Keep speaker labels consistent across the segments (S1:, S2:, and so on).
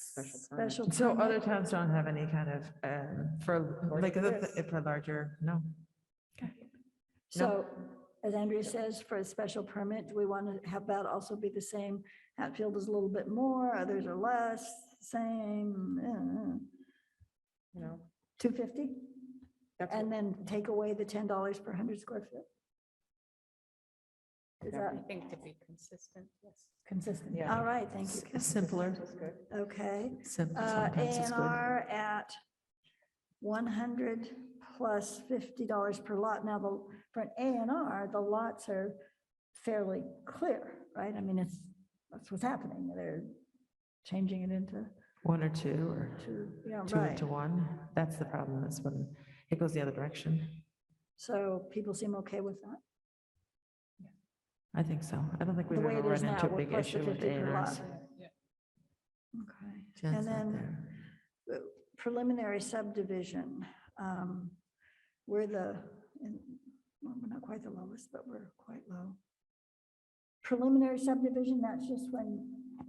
S1: special permit.
S2: Special.
S3: So
S2: permit.
S3: other towns don't have any kind of, um, for,
S1: Or
S3: like, the-
S1: this.
S3: for larger, no?
S2: So as Andrea says, for a special permit, do we want to have that also be the same? Hatfield is a little bit more, others are less, same, eh,
S1: You know,
S2: two fifty?
S1: that's what-
S2: And then take away the ten dollars per hundred square foot? Is
S1: Yeah.
S2: that
S4: I think to be consistent, yes.
S2: consistent?
S3: Yeah.
S2: All right, thank you. Kim.
S3: Simpler,
S2: Okay.
S3: simpler
S2: Uh, A
S3: sometimes is
S2: and
S3: good.
S2: R at one hundred plus fifty dollars per lot. Now, the, for an A and R, the lots are fairly clear, right? I mean, it's, that's what's happening. They're changing it into
S3: One or two, or
S2: two, you know,
S3: two
S2: right?
S3: into one. That's the problem, is when it goes the other direction.
S2: So people seem okay with that.
S3: I think so. I don't think we've
S2: The way
S3: ever
S2: it is
S3: run
S2: now,
S3: into a
S2: we're
S3: big
S2: plus the
S3: issue with
S2: 50
S3: A and
S2: per lot.
S3: Rs.
S2: Okay.
S3: Jen's
S2: And
S3: not
S2: then
S3: there.
S2: preliminary subdivision. um, We're the, in- well, we're not quite the lowest, but we're quite low. Preliminary subdivision, that's just when,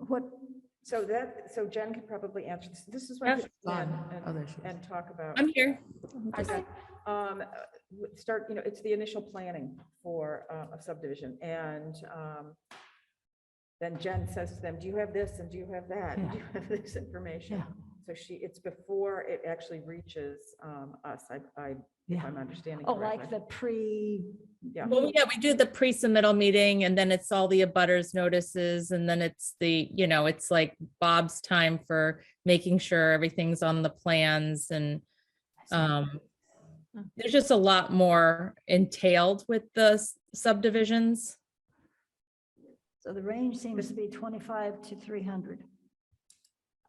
S2: what,
S1: So that, so Jen could probably answer this. This is what.
S4: Yeah.
S3: Gone. Oh, there she is.
S1: And talk about.
S4: I'm here.
S1: Okay. Um, uh, w- start, you know, it's the initial planning for uh, a subdivision and, um, then Jen says to them, do you have this and do you have that? and Do you have this information?
S3: Yeah.
S1: So she, it's before it actually reaches, um, us, I, I, if
S3: Yeah,
S1: I'm understanding
S2: oh,
S1: correctly.
S2: like the pre,
S1: Yeah,
S4: Well, yeah, we do the pre-submittal meeting and then it's all the abutters notices and then it's the, you know, it's like Bob's time for making sure everything's on the plans and
S1: Uh,
S4: um there's just a lot more entailed with the s- subdivisions.
S2: so the range seems to be 25 to 300.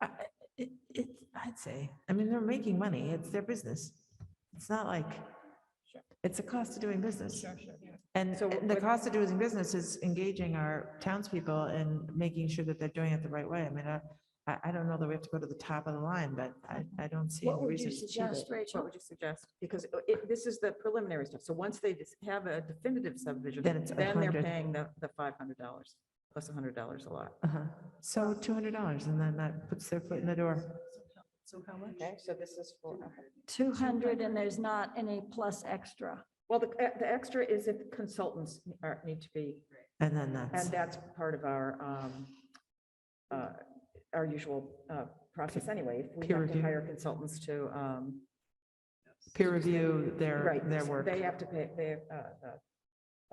S3: I- it, it, I'd say, I mean, they're making money. It's their business. It's not like, it's a cost of doing business. And
S1: So
S3: and the
S1: what-
S3: cost of doing business is engaging our townspeople and making sure that they're doing it the right way. I mean, I, I, I don't know that we have to go to the top of the line, but I, I don't see
S2: What
S3: any
S2: would you
S3: reason to cheat
S2: suggest,
S3: it.
S1: What
S2: Rachel?
S1: would you suggest? Because it- it, this is the preliminary stuff. So once they just have a definitive subdivision,
S3: Then it's a
S1: then they're
S3: hundred.
S1: paying the, the five hundred dollars plus a hundred dollars a lot.
S3: Uh-huh. So two hundred dollars and then that puts their foot in the door.
S1: So how much? Okay, so this is for, okay.
S2: 200 and there's not any plus extra.
S1: Well, the, uh, the extra is if consultants are, need to be,
S3: And then that's,
S1: and that's part of our, um, uh, our usual, uh, process anyway. If We
S3: Peer
S1: have to
S3: review.
S1: hire consultants to, um,
S3: peer review their,
S1: right.
S3: their
S1: so
S3: work.
S1: They have to pay, they, uh, the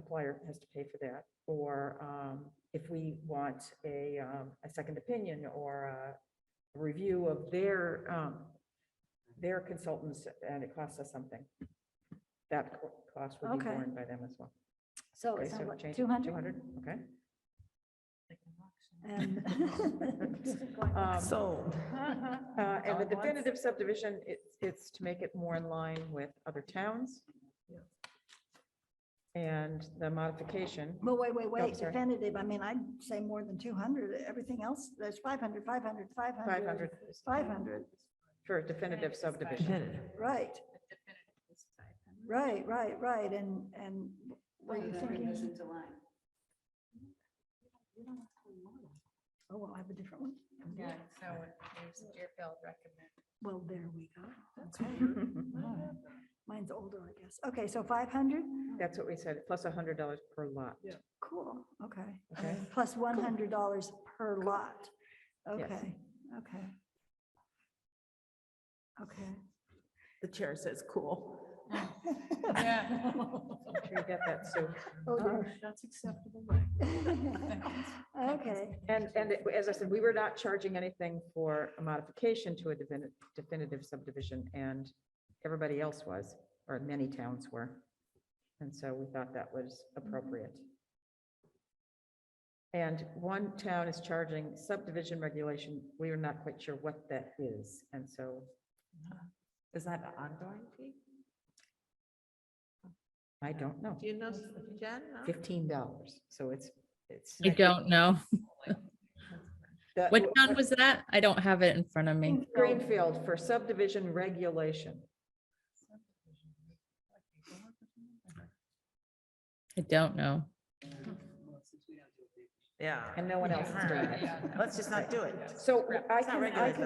S1: applier has to pay for that. Or, um, if we want a, um, a second opinion or a review of their, um, their consultants and it costs us something. That co- cost would be
S2: Okay.
S1: borne by them as well.
S2: So
S1: Okay,
S2: it's
S1: so
S2: not like
S1: change it to
S2: 200.
S1: 200, okay.
S2: and-
S1: Um,
S3: Sold.
S1: uh, And the definitive subdivision, it's, it's to make it more in line with other towns. And the modification,
S2: Well, wait, wait, wait,
S1: sorry.
S2: definitive, I mean, I'd say more than two hundred, everything else, there's 500, 500, 500,
S1: 500
S2: 500,
S1: for a definitive subdivision.
S3: Definitive.
S2: right. Right, right, right, and, and were you thinking? Oh, well, I have a different one.
S5: Yeah, so there's Deerfield recommend.
S2: Well, there we go, okay. Wow. Mine's older, I guess. Okay, so five hundred,
S1: That's what we said, plus a hundred dollars per lot.
S2: cool, okay.
S1: Okay.
S2: Plus one hundred dollars per lot.
S1: Yes.
S2: Okay, okay. Okay.
S3: The chair says cool.
S5: Yeah.
S1: Sure you get that, Sue.
S2: Oh, dear.
S5: That's acceptable.
S2: Okay,
S1: And, and it- as I said, we were not charging anything for a modification to a defini- definitive subdivision and everybody else was, or many towns were. And so we thought that was appropriate. And one town is charging subdivision regulation. We are not quite sure what that is. And so
S3: Is that an ongoing fee?
S1: I don't know,
S3: Do you know, Jen? no?
S1: fifteen dollars. So it's, it's.
S4: I don't know.
S1: The-
S4: What town was that? I don't have it in front of
S1: Mm.
S4: me.
S1: Greenfield for subdivision regulation.
S4: I don't know.
S3: Yeah.
S1: And no one else is doing it.
S3: Let's just not do it.
S1: So
S3: not
S1: I can, I
S3: regulated.
S1: can